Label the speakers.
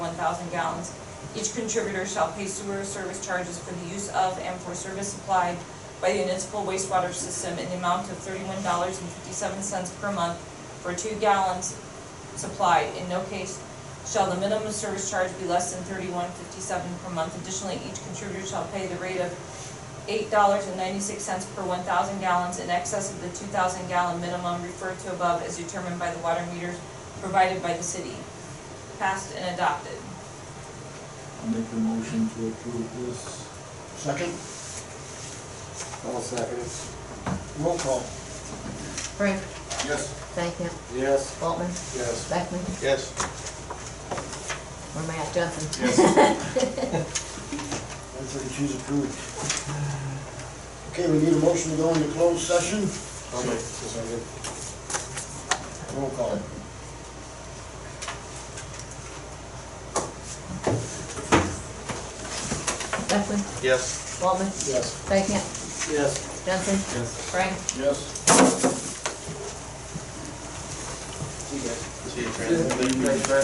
Speaker 1: thousand gallons. Each contributor shall pay sewer service charges for the use of and for service supplied by the municipal wastewater system in the amount of thirty-one dollars and fifty-seven cents per month for two gallons supplied. In no case shall the minimum service charge be less than thirty-one fifty-seven per month. Additionally, each contributor shall pay the rate of eight dollars and ninety-six cents per one thousand gallons in excess of the two thousand gallon minimum referred to above as determined by the water meters provided by the city. Passed and adopted.
Speaker 2: I'll make the motion to approve this.
Speaker 3: Second,
Speaker 4: I'll second it.
Speaker 3: roll call.
Speaker 5: Frank,
Speaker 3: Yes.
Speaker 5: Stankham,
Speaker 4: Yes.
Speaker 5: Waltman,
Speaker 4: Yes.
Speaker 5: Beckman,
Speaker 3: Yes.
Speaker 5: or Matt Duffin.
Speaker 3: One thirty-two's approved. Okay, we need a motion to go into closed session.
Speaker 4: I'll make this one.
Speaker 3: Roll call.
Speaker 5: Beckman,
Speaker 4: Yes.
Speaker 5: Waltman,
Speaker 3: Yes.
Speaker 5: Stankham,
Speaker 4: Yes.
Speaker 5: Duffin.
Speaker 4: Yes.
Speaker 5: Frank.
Speaker 3: Yes.
Speaker 4: See you, Fran. Thank you.